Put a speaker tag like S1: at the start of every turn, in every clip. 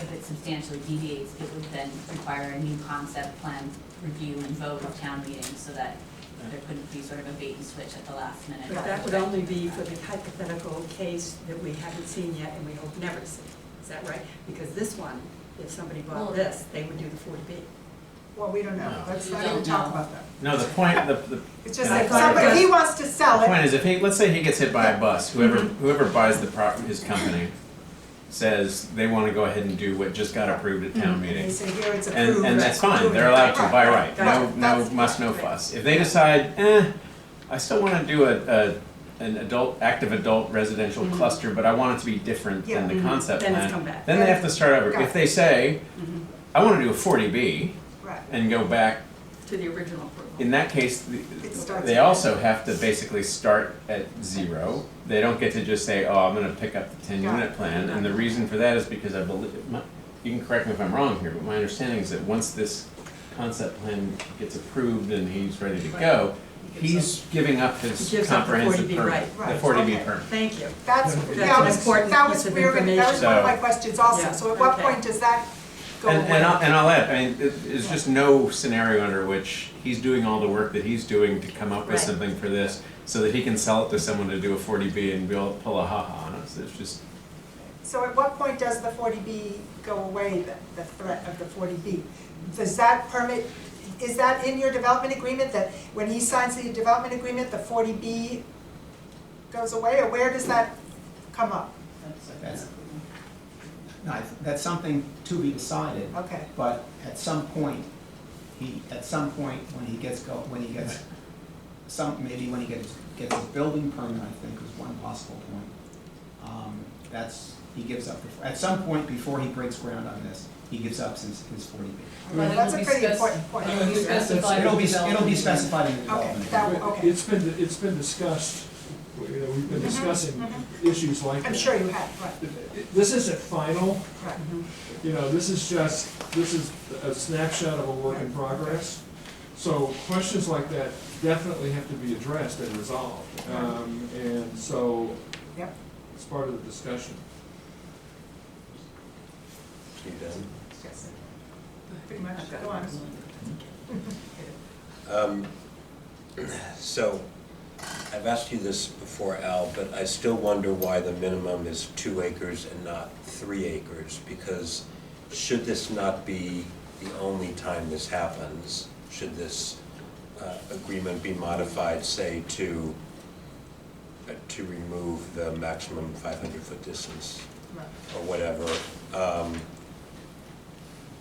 S1: If it substantially deviates, it would then require a new concept plan review and vote of town meeting so that there couldn't be sort of a bait and switch at the last minute.
S2: But that would only be for the hypothetical case that we haven't seen yet and we hope never to see. Is that right? Because this one, if somebody
S1: Well-
S2: bought this, they would do the forty B.
S3: Well, we don't know,
S4: No.
S3: let's
S1: You
S3: not even
S1: don't
S3: talk
S1: know.
S3: about that.
S4: No, the point, the, the
S3: It's just
S4: Yeah, I
S3: that
S4: thought it
S3: somebody,
S2: was-
S3: he wants to sell
S4: point
S3: it,
S4: is, if he, let's say he gets hit by a bus, whoever, whoever buys the prop, his company, says they wanna go ahead and do what just got approved at town
S3: and
S4: meeting.
S3: they say, here, it's approved.
S4: And, and that's fine,
S3: Approved.
S4: they're allowed to by right, no,
S2: Right,
S4: no,
S2: that's-
S4: must, no
S2: right.
S4: fuss. If they decide, eh, I still wanna do a, a, an adult, active adult residential
S2: Mhm.
S4: cluster, but I want it to be different than the
S2: Yeah. Mhm.
S4: concept
S2: Then
S4: plan.
S2: it's come back.
S4: Then they have to start over.
S3: Got
S4: If
S3: it.
S4: they say,
S2: Mhm.
S4: I wanna do a forty B
S3: Right,
S4: and go back
S2: To the original approval.
S4: In that case, the-
S3: It starts
S4: they
S3: again.
S4: also have to basically start at zero. They don't get to just say, oh, I'm gonna pick up the ten
S3: Got
S4: unit plan, and the reason for that is because I believe, my- you can correct me if I'm wrong here, but my understanding is that once this concept plan gets approved and he's ready to go, he's giving up his
S2: He gives up the
S4: comprehensive
S2: 40B,
S4: permit,
S3: right.
S4: the forty B
S3: Right, okay.
S4: permit.
S2: Thank you.
S3: that's,
S5: That's
S3: that
S2: an
S3: was,
S2: important
S3: that
S2: piece
S3: was,
S2: of
S3: we were gonna- that was one of my
S4: information.
S3: questions also,
S2: Yeah,
S3: so at what
S2: okay.
S3: point does that go away?
S4: And, and I'll, and I'll add, I mean, it- it's just no scenario under which he's doing all the work that he's doing to come up
S2: Right.
S4: with something for this, so that he can sell it to someone to do a forty B and be able to pull a ha-ha on us, it's just,
S3: So at what point does the forty B go away, the, the threat of the forty B? Does that permit, is that in your development agreement, that when he signs the development agreement, the forty B goes away, or where does that come up?
S5: That's, no, I- that's something to be decided,
S3: Okay,
S5: but at some point, he, at some point, when he gets go, when he gets, some, maybe when he gets, gets a building permit, I think is one possible point. Um, That's, he gives up, before- at some point before he breaks ground on this, he gives up his, his forty B.
S3: well, that's a pretty important point.
S6: It'll be specified.
S5: It'll be, it'll be specified in the development.
S3: Okay, that- okay.
S6: It's been, it's been discussed, you know, we've been
S3: Mhm,
S6: discussing issues like that.
S3: I'm sure you have, right,
S6: This isn't final,
S3: right.
S6: you know, this is just, this is a snapshot of a work in progress. So questions like that definitely have to be addressed and resolved. Um, And so
S3: Yep.
S6: it's part of the discussion.
S3: Yes. Pretty much, go on.
S7: Um, So, I've asked you this before, Al, but I still wonder why the minimum is two acres and not three acres, because should this not be the only time this happens? Should this uh, agreement be modified, say, to, uh, to remove the maximum 500-foot distance?
S3: Right.
S7: or whatever, um,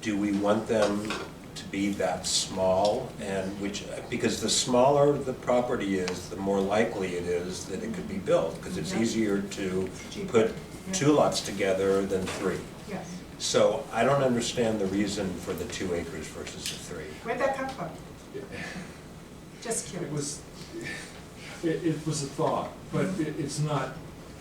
S7: do we want them to be that small? And which, because the smaller the property is, the more likely it is that it could be built, because it's
S3: Yeah.
S7: easier to
S3: Cheaper.
S7: put two
S3: Yeah.
S7: lots together than three.
S3: Yes,
S7: So I don't understand the reason for the two acres versus the three.
S3: where'd that come from? Just
S6: It
S3: curious.
S6: was, it, it was a thought, but it, it's not,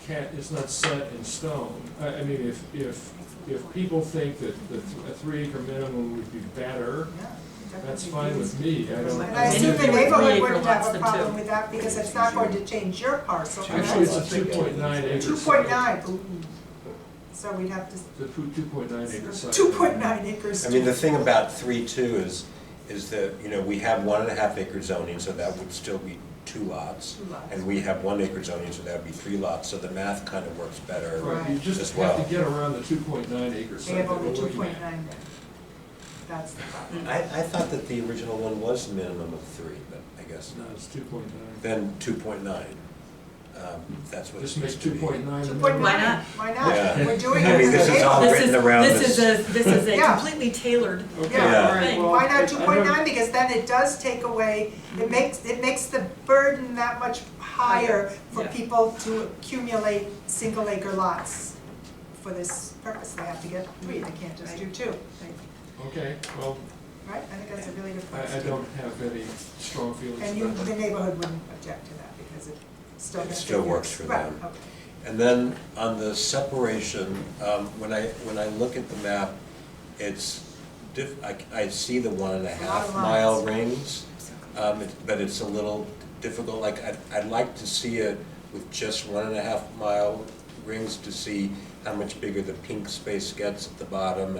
S6: can't, it's not set in stone. I, I mean, if, if, if people think that the, th- a three acre minimum would be better,
S3: Yeah, definitely.
S6: that's fine with me, I don't.
S3: And I
S6: don't
S3: assume the
S6: care.
S3: neighborhood
S2: Three
S3: wouldn't
S2: acre
S3: have
S2: lots
S3: a
S2: than
S3: problem
S2: two.
S3: with that, because it's not going to change your parcel.
S6: Actually, it's a two point nine acre.
S3: Two point nine, so we'd have to,
S6: The two point nine acre site.
S3: two point nine acres.
S7: I mean, the thing about three two is, is that, you know, we have one and a half acre zoning, so that would still be two lots.
S3: Two lots.
S7: And we have one acre zoning, so that would be three lots, so the math kind of works better.
S6: Right, you
S7: as
S6: just have
S7: well.
S6: to get around the two point nine acre
S3: They
S6: site
S3: have
S6: that we're
S3: only two
S6: looking
S3: point
S6: at.
S3: nine there. That's the problem.
S7: I, I thought that the original one was a minimum of three, but I guess
S6: No,
S7: not.
S6: it's two point nine.
S7: Then two point nine, um, that's what it
S6: Just make
S7: used to
S6: two
S7: be.
S6: point nine.
S3: Two point
S2: Why
S3: nine,
S2: not?
S3: why
S7: Yeah.
S3: not? We're doing
S7: I
S3: it
S7: mean,
S3: for the
S7: this is all
S3: neighborhood.
S2: This is,
S7: written around
S2: this is a, this is a
S3: Yeah.
S2: completely tailored.
S6: Okay,
S7: Yeah.
S6: all right, well.
S3: Why
S6: I- I
S3: not two point
S6: don't-
S3: nine, because then it does take away, it makes, it makes the burden that much higher for
S2: Yeah.
S3: people to accumulate single acre lots. For this purpose, they have to get three, they can't just do two,
S6: Okay, well,
S3: right? I think that's a really good point.
S6: I, I don't have any strong
S3: And
S6: feelings
S3: you,
S6: about
S3: the
S6: that.
S3: neighborhood wouldn't object to that, because it still.
S7: It still works for
S3: Right,
S7: them.
S3: okay.
S7: And then on the separation, um, when I, when I look at the map, it's diff, I, I see the one and a
S3: It's a lot
S7: half
S3: of
S7: mile
S3: lines.
S7: rings. Um, it- but it's a little difficult, like, I'd, I'd like to see it with just one and a half mile rings to see how much bigger the pink space gets at the bottom